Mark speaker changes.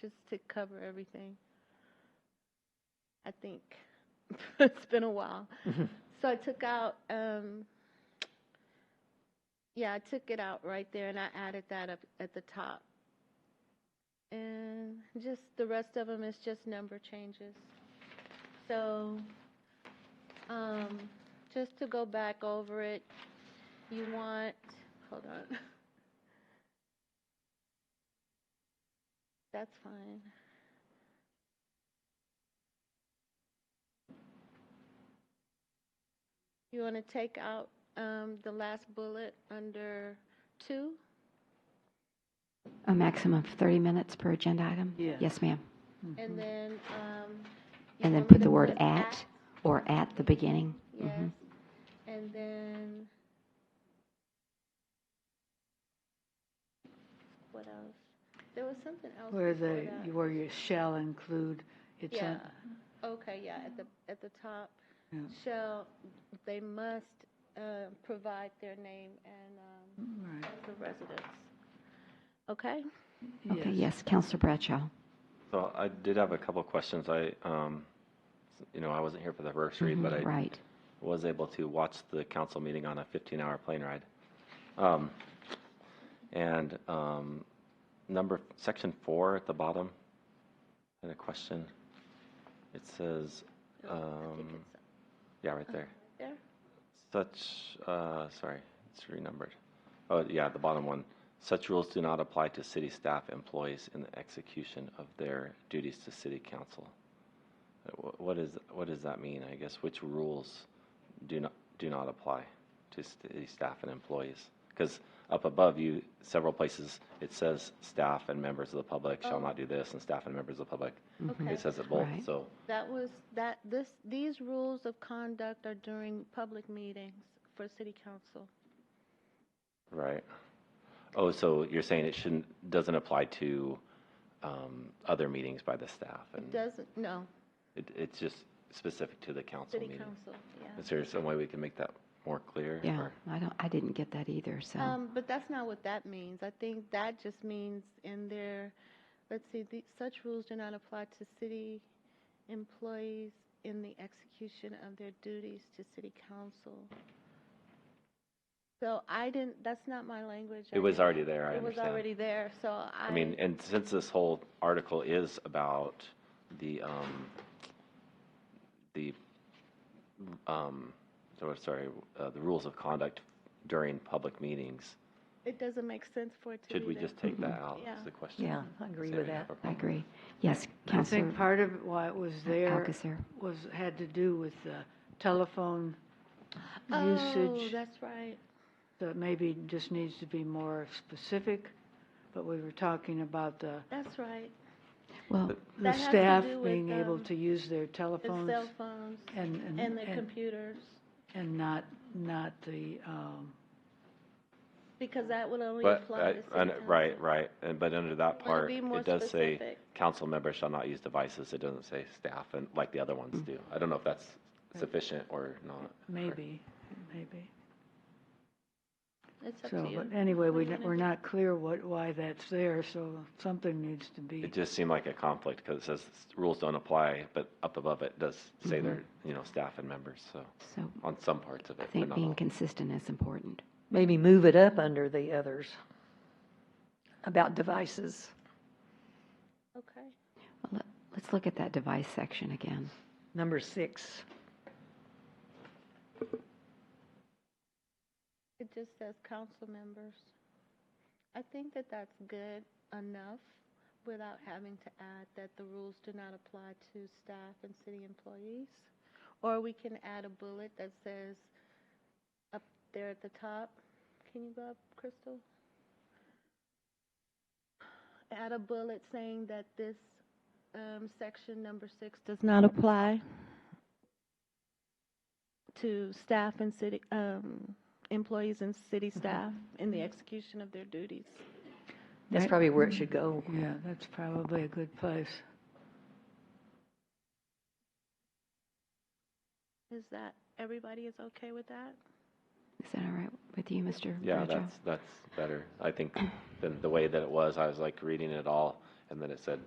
Speaker 1: just to cover everything. I think it's been a while.
Speaker 2: Mhm.
Speaker 1: So I took out, um, yeah, I took it out right there and I added that up at the top. And just the rest of them is just number changes. So, um, just to go back over it, you want, hold on. That's fine. You want to take out um, the last bullet under two?
Speaker 3: A maximum of 30 minutes per agenda item?
Speaker 4: Yes.
Speaker 3: Yes, ma'am.
Speaker 1: And then. um, you
Speaker 3: Mm-hmm. And then
Speaker 1: want me
Speaker 3: put
Speaker 1: to
Speaker 3: the word
Speaker 1: put
Speaker 3: at or at the beginning.
Speaker 1: Yes.
Speaker 3: Mhm.
Speaker 1: And then. What else? There was something else.
Speaker 4: Where
Speaker 1: before
Speaker 4: the,
Speaker 1: that.
Speaker 4: where you shall include, it's
Speaker 1: Yeah.
Speaker 4: on,
Speaker 1: Okay, yeah, at the, at the top.
Speaker 4: Yeah.
Speaker 1: Shall, they must uh, provide their name and
Speaker 4: right,
Speaker 3: Mm-hmm.
Speaker 1: um, the residence. Okay?
Speaker 3: Okay, yes, Counselor Bradshaw.
Speaker 2: So I did have a couple of questions. I, um, you know, I wasn't here for the first read, but
Speaker 3: Mhm,
Speaker 2: I
Speaker 3: Right.
Speaker 2: was able to watch the council meeting on a 15-hour plane ride. Um, And um, number, section four at the bottom, I had a question. It says,
Speaker 1: Oh, I think
Speaker 2: Um,
Speaker 1: it's up
Speaker 2: yeah, right there.
Speaker 1: There?
Speaker 2: Such, uh, sorry, it's renumbered. Oh, yeah, the bottom one. Such rules do not apply to city staff employees in the execution of their duties to city council. Uh, wh- What is, what does that mean, I guess? Which rules do not, do not apply to city staff and employees? Because up above you, several places, it says staff and members of the public shall
Speaker 1: Oh.
Speaker 2: not do this, and staff and members of the public.
Speaker 3: Mhm.
Speaker 1: Okay.
Speaker 2: It says it both,
Speaker 3: Right.
Speaker 2: so,
Speaker 1: That was, that, this, these rules of conduct are during public meetings for city council.
Speaker 2: right. Oh, so you're saying it shouldn't, doesn't apply to um, other meetings by the staff?
Speaker 1: It
Speaker 2: and
Speaker 1: doesn't, no,
Speaker 2: it- It's just specific to the council
Speaker 1: city
Speaker 2: meeting?
Speaker 1: council, yeah.
Speaker 2: Is there some way we can make that more clear?
Speaker 3: Yeah,
Speaker 2: or-
Speaker 3: I don't, I didn't get that either, so.
Speaker 1: Um, but that's not what that means. I think that just means in there, let's see, the, such rules do not apply to city employees in the execution of their duties to city council. So I didn't, that's not my language. I
Speaker 2: It was
Speaker 1: didn't-
Speaker 2: already there, I
Speaker 1: It was
Speaker 2: understand.
Speaker 1: already there, so I.
Speaker 2: I mean, and since this whole article is about the, um, the, um, so- sorry, uh, the rules of conduct during public meetings,
Speaker 1: It doesn't make sense for it to be
Speaker 2: should we
Speaker 1: there.
Speaker 2: just take that out,
Speaker 1: Yeah.
Speaker 2: is the question?
Speaker 5: Mm-hmm. Yeah, I agree
Speaker 2: Say
Speaker 5: with
Speaker 2: we have
Speaker 5: that.
Speaker 3: I
Speaker 2: a problem.
Speaker 3: agree. Yes,
Speaker 4: I
Speaker 3: Counselor
Speaker 4: think part of why it was there
Speaker 3: Alcazar.
Speaker 4: was, had to do with the telephone
Speaker 1: Oh,
Speaker 4: usage.
Speaker 1: that's right.
Speaker 4: So it maybe just needs to be more specific, but we were talking about the,
Speaker 1: That's right.
Speaker 3: Well,
Speaker 4: the
Speaker 1: That has to
Speaker 4: staff
Speaker 1: do with,
Speaker 4: being able
Speaker 1: um,
Speaker 4: to use their
Speaker 1: The cell
Speaker 4: telephones
Speaker 1: phones
Speaker 4: and,
Speaker 1: and
Speaker 4: and,
Speaker 1: the
Speaker 4: and-
Speaker 1: computers,
Speaker 4: and not, not the, um,
Speaker 1: because that would only
Speaker 2: But, uh,
Speaker 1: apply to
Speaker 2: I-
Speaker 1: city
Speaker 2: and-
Speaker 1: council.
Speaker 2: right, right, and, but under that
Speaker 1: Wanna
Speaker 2: part,
Speaker 1: be more
Speaker 2: it does say,
Speaker 1: specific.
Speaker 2: council members shall not use devices, it doesn't say staff, and, like the other ones do. I don't know if that's sufficient or not.
Speaker 4: maybe, maybe.
Speaker 1: It's up to
Speaker 4: So,
Speaker 1: you.
Speaker 4: but anyway, we,
Speaker 1: What do you
Speaker 4: don't- we're
Speaker 1: wanna
Speaker 4: not clear what, why that's there, so something needs to be.
Speaker 2: It just seemed like a conflict, because it says rules don't apply, but up above it does say
Speaker 3: Mm-hmm.
Speaker 2: they're, you know, staff and members, so,
Speaker 3: so
Speaker 2: on some parts of
Speaker 3: I
Speaker 2: it, but
Speaker 3: think
Speaker 2: not all.
Speaker 3: being consistent is important.
Speaker 5: Maybe move it up under the others about devices.
Speaker 1: Okay.
Speaker 3: Well, let- Let's look at that device section again.
Speaker 5: Number six,
Speaker 1: It just says council members. I think that that's good enough without having to add that the rules do not apply to staff and city employees. Or we can add a bullet that says up there at the top. Can you go up, Crystal? Add a bullet saying that this um, section number six does not apply to staff and city, um, employees and city staff in the execution of their duties.
Speaker 5: that's
Speaker 4: Right.
Speaker 5: probably where it should go.
Speaker 4: Yeah, that's probably a good place.
Speaker 1: Is that, everybody is okay with that?
Speaker 3: Is that all right with you, Mr.
Speaker 2: Yeah,
Speaker 3: Bradshaw?
Speaker 2: that's, that's better, I think, than the way that it was, I was like reading it all, and then it said